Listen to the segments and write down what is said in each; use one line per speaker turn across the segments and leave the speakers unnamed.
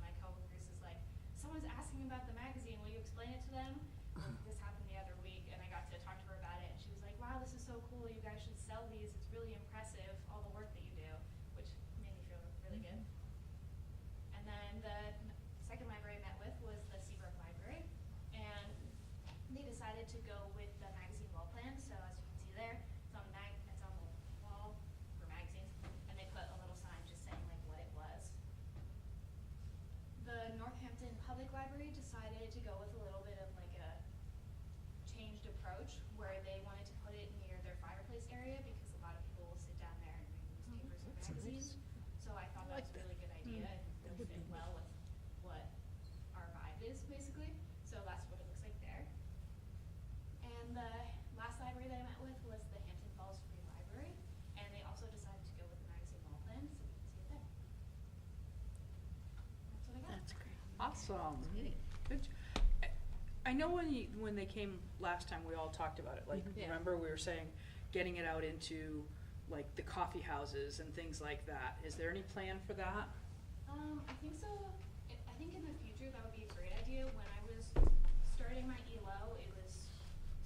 um, Um,
Awesome. Good. j- I- I know when you, when they came last time, we all talked about it, like,
Mhm. Yeah.
remember we were saying, getting it out into, like, the coffee houses and things like that. Is there any plan for that?
Um, I think so. I I think in the future that would be a great idea. When I was starting my ELO, it was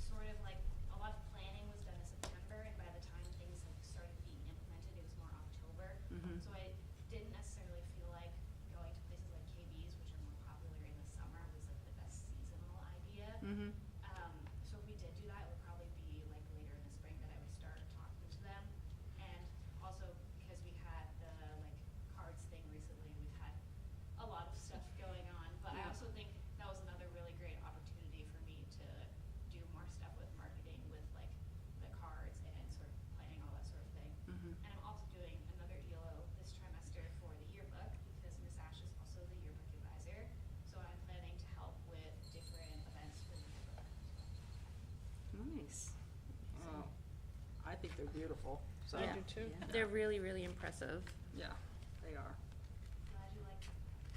sort of like a lot of planning was done in September, and by the time things like started being implemented, it was more October.
Mhm.
So I didn't necessarily feel like going to places like KB's, which are more popular in the summer, was like the best seasonal idea.
Mm-hmm.
Um, so if we did do that, it would probably be like later in the spring that I would start talking to them. And also because we had the like cards thing recently, we've had a lot of stuff going on. But I
Yeah.
also think that was another really great opportunity for me to do more stuff with marketing with like the cards and sort of planning all that sort of thing.
Mhm.
Mm-hmm.
And I'm also doing another ELO this trimester for the yearbook because Miss Ash is also the yearbook advisor. So I'm planning to help with different events for the yearbook.
Mm-hmm. Nice. Wow. I think they're beautiful, so.
Yeah.
Yeah.
They're really, really impressive.
Yeah, they are.
Glad you like.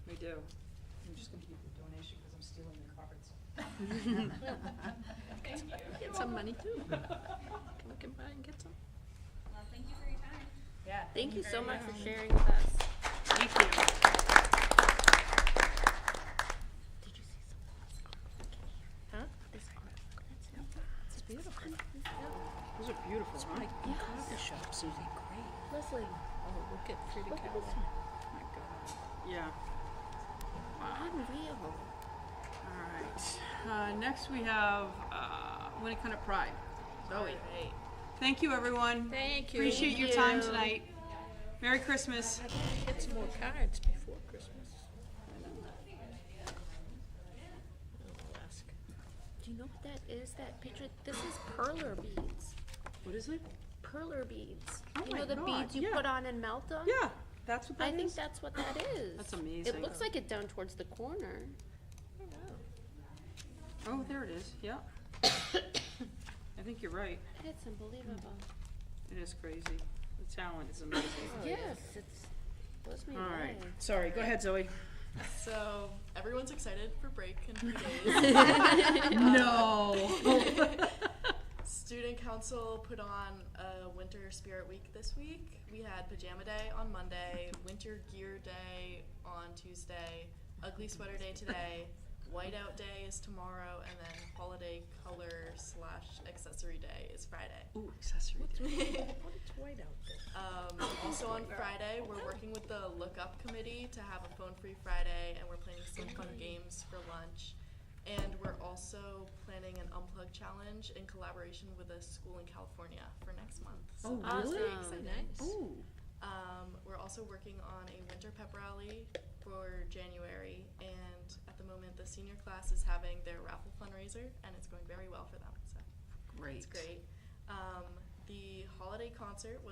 They do.
I'm just gonna give you a donation because I'm stealing the cards.
Thank you.
Get some money too. Can we come by and get some?
Well, thank you for your time.
Yeah.
Thank you so
very
much for sharing with us.
Thank you.
Did you see some? Huh? This one. That's it.
It's beautiful.
Those are beautiful, huh?
Yeah. Coffee shop, Susie, great.
Leslie,
Oh, look at pretty
look at this
cow.
My
one.
God. Yeah.
Unreal.
All right. Uh, next we have uh, Winnicott Pride. Zoe. Thank you, everyone.
Thank you.
Appreciate your time tonight. Merry Christmas.
Get some more cards before Christmas. I'll ask. Do you know what that is, that picture? This is perler beads.
What is it?
Perler beads.
Oh
You
my
know the
God,
beads you
yeah.
put on and melt them?
Yeah, that's what
Oh. I
that
think
is.
that's what that is.
That's amazing.
It looks like it down towards the corner.
Oh, there it is. Yeah. I think you're right.
It's unbelievable.
It is crazy. The talent is amazing.
Yes, it's, blows me
All right.
away.
Sorry. Go ahead, Zoe.
So everyone's excited for break in three days.
No.
Student council put on a winter spirit week this week. We had pajama day on Monday, winter gear day on Tuesday, ugly sweater day today, whiteout day is tomorrow, and then holiday color slash accessory day is Friday.
Ooh, accessory.
It's white out there.
Um, also on Friday, we're working with the Look Up Committee to have a phone free Friday, and we're planning some fun games for lunch. And we're also planning an unplug challenge in collaboration with a school in California for next month. So,
Oh, really?
Awesome.
Ooh.
um, we're also working on a winter pep rally for January, and at the moment, the senior class is having their raffle fundraiser, and it's going very well for them. So
Great.
it's great. Um, the holiday concert was.